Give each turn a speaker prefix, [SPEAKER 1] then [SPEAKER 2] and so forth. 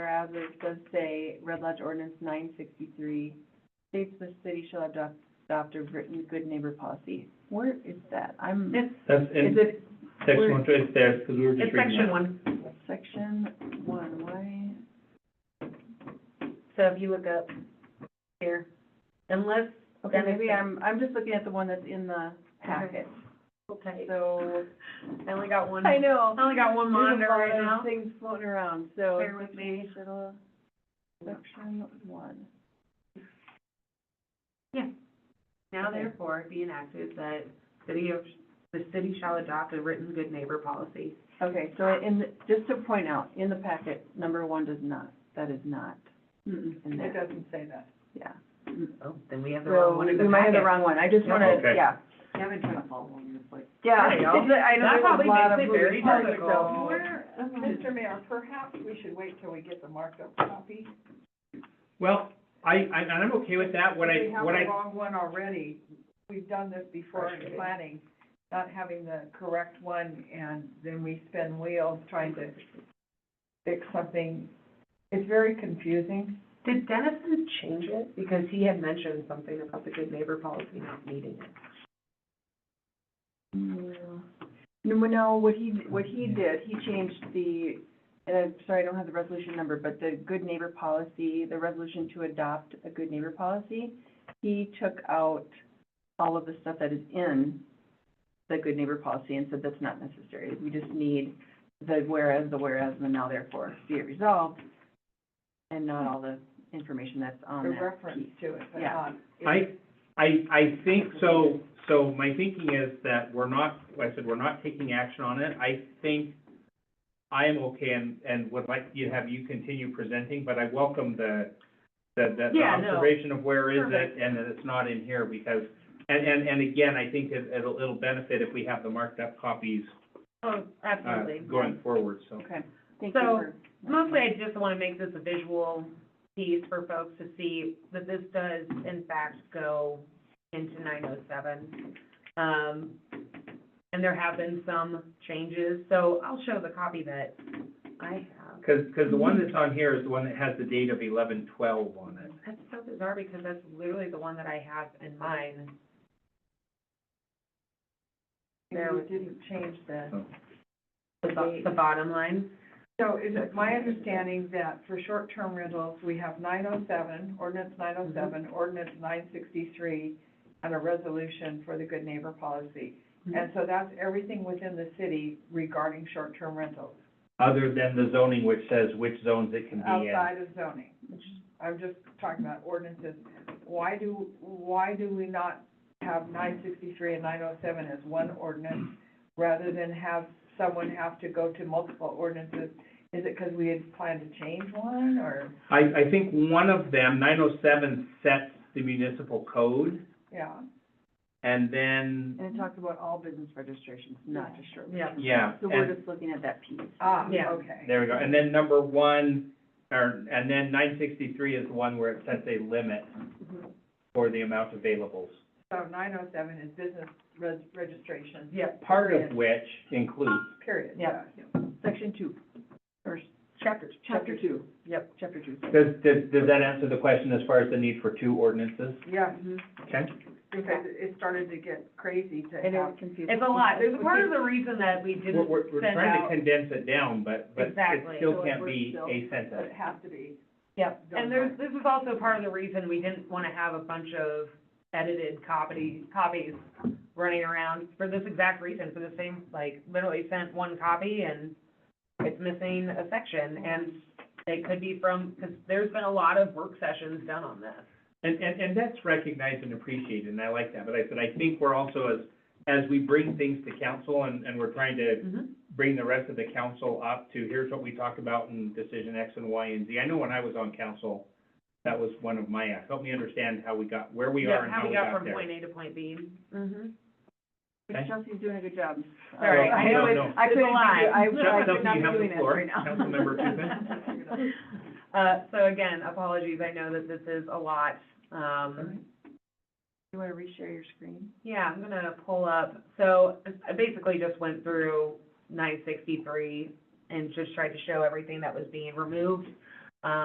[SPEAKER 1] houses does say Red Lodge Ordinance nine sixty-three states the city shall adopt, adopt a written good neighbor policy. Where is that? I'm,
[SPEAKER 2] It's,
[SPEAKER 3] That's
[SPEAKER 2] is
[SPEAKER 3] in
[SPEAKER 2] it,
[SPEAKER 3] section
[SPEAKER 2] we're-
[SPEAKER 3] one, it's there, because we were just
[SPEAKER 2] it's
[SPEAKER 3] reading
[SPEAKER 2] section
[SPEAKER 3] that.
[SPEAKER 2] one.
[SPEAKER 1] section one, why?
[SPEAKER 2] So if you look up here, unless,
[SPEAKER 1] Okay,
[SPEAKER 2] That makes
[SPEAKER 1] maybe
[SPEAKER 2] sense.
[SPEAKER 1] I'm, I'm just looking at the one that's in the packet,
[SPEAKER 2] okay,
[SPEAKER 1] so.
[SPEAKER 2] I only got one,
[SPEAKER 1] I
[SPEAKER 2] I
[SPEAKER 1] know.
[SPEAKER 2] only got one monitor right
[SPEAKER 1] There's a lot of
[SPEAKER 2] now.
[SPEAKER 1] Things floating around, so.
[SPEAKER 2] Bear with me.
[SPEAKER 1] Section- Section one.
[SPEAKER 2] Now therefore be enacted that city of, the city shall adopt a written good neighbor policy.
[SPEAKER 1] Okay, so in, the- just to point out, in the packet, number one does not, that is not in
[SPEAKER 4] It
[SPEAKER 1] there,
[SPEAKER 4] doesn't say that.
[SPEAKER 1] yeah.
[SPEAKER 2] Oh, then we have the
[SPEAKER 1] So
[SPEAKER 2] wrong one in
[SPEAKER 1] we
[SPEAKER 2] the
[SPEAKER 1] might have the
[SPEAKER 2] packet.
[SPEAKER 1] wrong one, I just
[SPEAKER 2] Yeah.
[SPEAKER 1] wanna,
[SPEAKER 3] Okay.
[SPEAKER 1] yeah,
[SPEAKER 4] I haven't tried to follow along this way.
[SPEAKER 1] yeah.
[SPEAKER 2] There you go.
[SPEAKER 1] I know
[SPEAKER 2] That
[SPEAKER 1] there was a
[SPEAKER 2] probably
[SPEAKER 1] lot
[SPEAKER 2] makes
[SPEAKER 1] of
[SPEAKER 2] it very
[SPEAKER 1] moving parts,
[SPEAKER 2] difficult.
[SPEAKER 1] so-
[SPEAKER 4] Where, Mr. uh, Mayor, perhaps we should wait till we get the marked up copy.
[SPEAKER 3] Well, I, I, and I'm okay with that, what I, what
[SPEAKER 4] We
[SPEAKER 3] I,
[SPEAKER 4] have the wrong one already. We've done this before in
[SPEAKER 2] Frustrating.
[SPEAKER 4] planning, not having the correct one, and then we spin wheels trying to fix something. It's very confusing.
[SPEAKER 2] Did Dennison change it? Because he had mentioned something about the good neighbor policy not needing it.
[SPEAKER 1] No, well, no, what he, what he did, he changed the, and I'm sorry, I don't have the resolution number, but the good neighbor policy, the resolution to adopt a good neighbor policy, he took out all of the stuff that is in the good neighbor policy and said that's not necessary. We just need the whereas, the whereas, and the now therefore be it resolved, and not all the information that's
[SPEAKER 4] A
[SPEAKER 1] on that
[SPEAKER 4] reference
[SPEAKER 1] piece.
[SPEAKER 4] to it, but
[SPEAKER 1] Yeah.
[SPEAKER 4] not.
[SPEAKER 3] I, I, I think, so, so my thinking is that we're not, like I said, we're not taking action on it. I think I am okay and, and would like you to have you continue presenting, but I welcome the, the, the- the
[SPEAKER 2] Yeah, no.
[SPEAKER 3] observation of where is
[SPEAKER 2] Perfect.
[SPEAKER 3] it and that it's not in here because, and, and, and again, I think it, it'll, it'll benefit if we have the marked up copies,
[SPEAKER 2] Oh,
[SPEAKER 3] uh, going forward, so.
[SPEAKER 1] Okay, thank you
[SPEAKER 2] So,
[SPEAKER 1] for.
[SPEAKER 2] Mostly, I just want to make this a visual piece for folks to see that this does in fact go into nine oh seven. Um, and there have been some changes, so I'll show the copy that I have.
[SPEAKER 3] Because, because the one that's on here is the one that has the date of eleven twelve on it.
[SPEAKER 2] That's so bizarre because that's literally the one that I have in mine. There
[SPEAKER 4] We
[SPEAKER 2] was
[SPEAKER 4] didn't change the.
[SPEAKER 2] the, bo- the bottom line.
[SPEAKER 4] So is it my understanding that for short-term rentals, we have nine oh seven, ordinance nine oh seven, ordinance nine sixty-three, and a resolution for the good neighbor policy?
[SPEAKER 3] Mm-hmm.
[SPEAKER 2] Mm-hmm.
[SPEAKER 4] And so that's everything within the city regarding short-term rentals,
[SPEAKER 3] Other than the zoning which says which zones it can be in.
[SPEAKER 4] outside of zoning. I'm just talking about ordinances. Why do, why do we not have nine sixty-three and nine oh seven as one ordinance rather than have someone have to go to multiple ordinances? Is it because we had planned to change one or,
[SPEAKER 3] I, I think one of them, nine oh seven, sets the municipal code,
[SPEAKER 4] yeah?
[SPEAKER 3] and then,
[SPEAKER 1] And it talked about all business registrations, not just short.
[SPEAKER 2] Yeah.
[SPEAKER 3] yeah.
[SPEAKER 1] So we're
[SPEAKER 3] and-
[SPEAKER 1] just looking at that piece.
[SPEAKER 4] Ah,
[SPEAKER 2] Yeah.
[SPEAKER 4] okay.
[SPEAKER 3] There we go, and then number one, or, and then nine sixty-three is the one where it sets a limit for the amount availables.
[SPEAKER 4] Mm-hmm. So nine oh seven is business res- registration,
[SPEAKER 2] Yeah.
[SPEAKER 3] Part of which includes,
[SPEAKER 4] period.
[SPEAKER 2] Yeah.
[SPEAKER 1] Section two, or
[SPEAKER 2] Chapter,
[SPEAKER 1] chapter two,
[SPEAKER 2] Yep.
[SPEAKER 1] chapter two.
[SPEAKER 3] does, does, does that answer the question as far as the need for two ordinances?
[SPEAKER 4] Yeah,
[SPEAKER 3] Okay?
[SPEAKER 4] because it it started to get crazy to
[SPEAKER 1] And it
[SPEAKER 4] have.
[SPEAKER 1] was confusing.
[SPEAKER 2] It's a lot. There's a part of the reason that we didn't
[SPEAKER 3] We're, we're, we're
[SPEAKER 2] send
[SPEAKER 3] trying to
[SPEAKER 2] out.
[SPEAKER 3] condense it down, but, but it
[SPEAKER 2] Exactly.
[SPEAKER 3] still
[SPEAKER 1] So it
[SPEAKER 3] can't
[SPEAKER 1] works
[SPEAKER 3] be
[SPEAKER 1] still.
[SPEAKER 3] a
[SPEAKER 4] But
[SPEAKER 3] sentence.
[SPEAKER 4] it has to be,
[SPEAKER 2] Yep,
[SPEAKER 4] Don't
[SPEAKER 2] and there's, this is also part of the reason we didn't want to have a bunch of edited copy, copies running around for this exact reason, for the same, like, literally sent one copy and it's missing a section, and it could be from, because there's been a lot of work sessions done on this.
[SPEAKER 3] And, and, and that's recognized and appreciated, and I like that, but I, but I think we're also, as, as we bring things to council and, and we're trying to bring the rest of the council up to, here's what we talked about in decision X and Y and Z. I know when I was on council, that was one of my, asks. help me understand how we got, where we are
[SPEAKER 2] Yeah,
[SPEAKER 3] and how we got
[SPEAKER 2] from
[SPEAKER 3] there.
[SPEAKER 2] point A to point B. Mm-hmm.
[SPEAKER 3] Okay.
[SPEAKER 1] Chelsea's doing a good job.
[SPEAKER 2] Sorry,
[SPEAKER 3] Well,
[SPEAKER 2] I
[SPEAKER 3] no,
[SPEAKER 2] know it's,
[SPEAKER 3] no.
[SPEAKER 1] I
[SPEAKER 2] it's a
[SPEAKER 1] couldn't, do-
[SPEAKER 2] lot.
[SPEAKER 1] I, I
[SPEAKER 3] Chelsea,
[SPEAKER 1] could not
[SPEAKER 3] you have
[SPEAKER 1] be
[SPEAKER 3] the
[SPEAKER 1] doing that
[SPEAKER 3] floor.
[SPEAKER 1] right now.
[SPEAKER 3] Councilmember
[SPEAKER 4] Tupin.
[SPEAKER 2] Uh, so again, apologies, I know that this is a lot, um,
[SPEAKER 1] You wanna reshare your screen?
[SPEAKER 2] Yeah, I'm gonna pull up, so I basically just went through nine sixty-three and just tried to show everything that was being removed. Um,